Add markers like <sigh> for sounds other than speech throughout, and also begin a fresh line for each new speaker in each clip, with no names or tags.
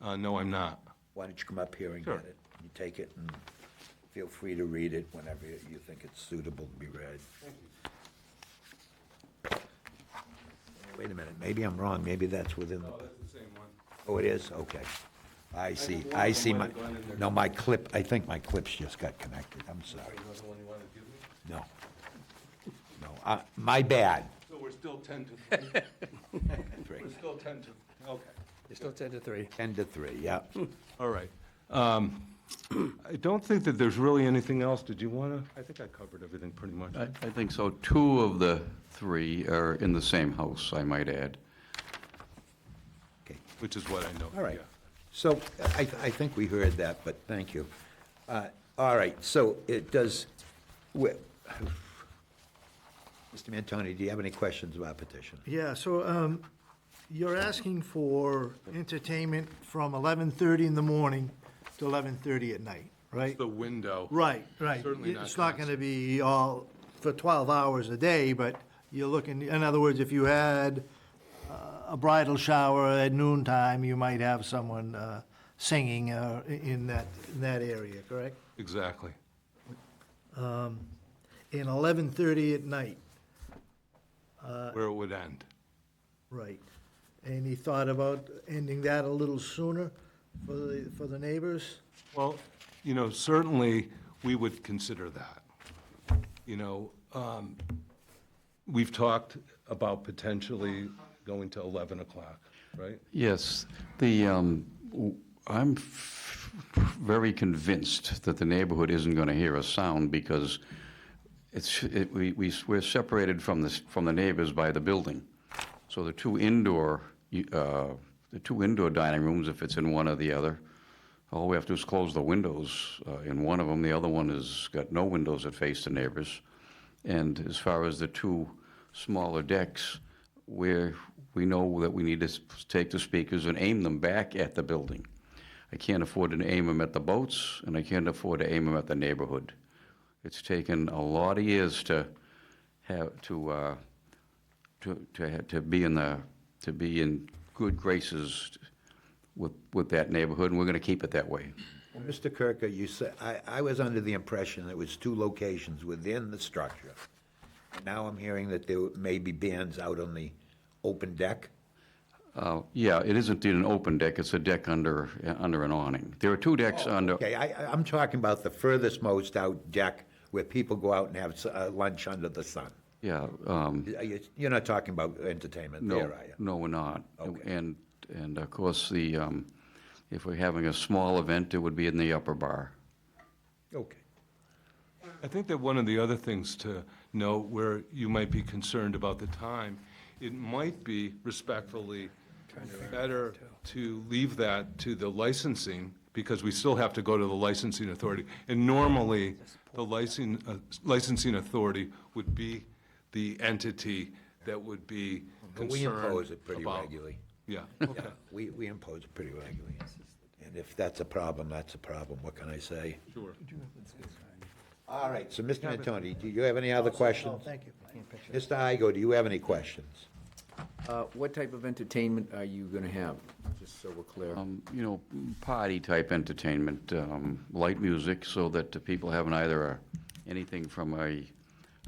Uh, no, I'm not.
Why don't you come up here and get
Sure.
it? You take it and feel free to read it whenever you you think it's suitable to be read. Wait a minute, maybe I'm wrong, maybe that's within the,
the same one.
oh, it is, okay. I see,
one
I
of them
see
might
my,
have gone in there.
no, my clip, I think my clips just got connected, I'm sorry,
Another one you want to give me?
no. No, I- my bad.
So we're still 10 to, <laughs> we're still 10 to, okay.
It's still 10 to 3.
10 to 3, yeah.
All right. Um, <clears throat> I don't think that there's really anything else. Did you want to? I think I covered everything pretty much.
I I think so. Two of the three are in the same house, I might add.
Okay.
Which is what I know.
All right.
yeah.
So I, I think we heard that, but thank you. Uh, All right, so it does, we- Mr. Mantoni, do you have any questions about petition?
Yeah, so um, you're asking for entertainment from 11:30 in the morning to 11:30 at night, right?
The window.
Right, right.
Certainly not
It's not going to be all for 12 hours a day, but you're looking, in other words, if you had uh, a bridal shower at noon time, you might have someone uh, singing uh, i- in that, in that area, correct?
Exactly.
And 11:30 at night.
Where it would end.
Right. And he thought about ending that a little sooner for the, for the neighbors?
Well, you know, certainly, we would consider that. You know, um, we've talked about potentially going to 11 o'clock, right?
Yes, the, um, w- I'm f- very convinced that the neighborhood isn't going to hear a sound because it's, it- we- we, we're separated from the, s- from the neighbors by the building. So the two indoor, uh, the two indoor dining rooms, if it's in one or the other, all we have to do is close the windows uh, in one of them. The other one has got no windows that face the neighbors. And as far as the two smaller decks, where we know that we need to s- take the speakers and aim them back at the building. I can't afford to aim them at the boats, and I can't afford to aim them at the neighborhood. It's taken a lot of years to have, to, uh, to, to, ha- to be in the, to be in good graces with, with that neighborhood, and we're gonna keep it that way.
Well, Mr. Kirker, you said, I, I was under the impression it was two locations within the structure. And Now I'm hearing that there may be bands out on the open deck.
Uh, yeah, it isn't an open deck, it's a deck under, uh, under an awning. There are two decks under,
Oh, Okay, I, I- I'm talking about the furthest most out deck where people go out and have s- uh, lunch under the sun.
yeah, um,
Are you- You're not talking about entertainment there, are you?
No, no, we're not. And, and of course, the, um, if we're having a small event, it would be in the upper bar.
Okay.
I think that one of the other things to note where you might be concerned about the time, it might be respectfully better to leave that to the licensing, because we still have to go to the licensing authority. And normally, the licensing, uh, licensing authority would be the entity that would be
But we
concerned
impose it pretty
about-
regularly.
Yeah, okay.
We, we impose it pretty regularly. And if that's a problem, that's a problem, what can I say?
Sure.
All right, so Mr. Antoni, do you have any other questions?
Oh, Thank you.
Mr. Igo, do you have any questions?
Uh, What type of entertainment are you going to have? Just so we're clear.
Um, you know, party-type entertainment, um, light music, so that the people haven't either a, anything from a,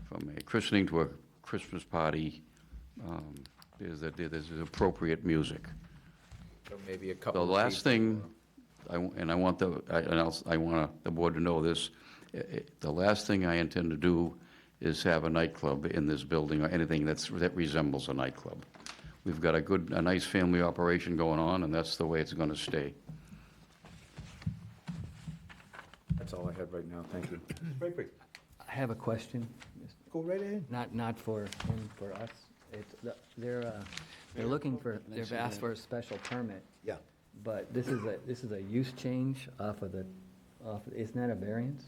from a christening to a Christmas party. Um, There's, a- there's appropriate music.
So Maybe a couple
The
of
last
people-
thing, I w- and I want the, I- and I'll, I want the board to know this, eh, eh, the last thing I intend to do is have a nightclub in this building, or anything that's, that resembles a nightclub. We've got a good, a nice family operation going on, and that's the way it's gonna stay.
That's all I had right now, thank you.
I have a question,
Go right ahead.
not, not for him, for us. It's, the- they're, uh, they're looking for, they've asked for a special permit,
Yeah.
but this is a, this is a use change off of the, off, isn't that a variance?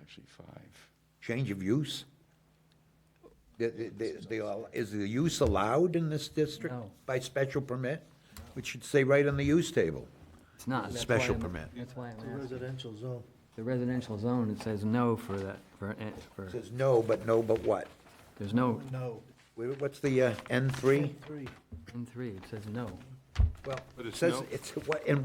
Actually, five.
Change of use? The- the- the- the al- Is the use allowed in this district
No.
by special permit? Which should say right on the use table.
It's not. that's why
Special
I'm-
permit.
That's why I'm asking.
Residential zone.
The residential zone, it says no for that, for, an- for,
Says no, but no, but what?
there's no,
No.
Where- What's the uh, N3?
Three.
in three, it says no.
Well,
But
it
it's
says,
no-
it's, what- in